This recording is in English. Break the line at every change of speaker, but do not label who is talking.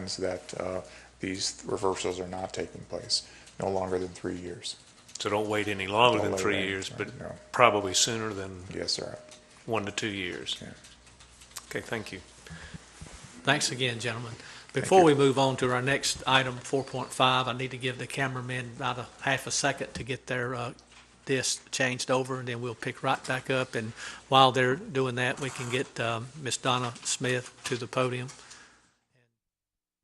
is that uh, these reversals are not taking place, no longer than three years.
So don't wait any longer
Don't
than
wait
three
any-
years, but
no.
probably sooner than
Yes, sir.
one to two years.
Yeah.
Okay, thank you.
Thanks again, gentlemen. Before we move on to our next item, 4.5, I need to give the cameramen about a half a second to get their uh, disc changed over, and then we'll pick right back up. And while they're doing that, we can get um, Ms. Donna uh, Smith to the podium.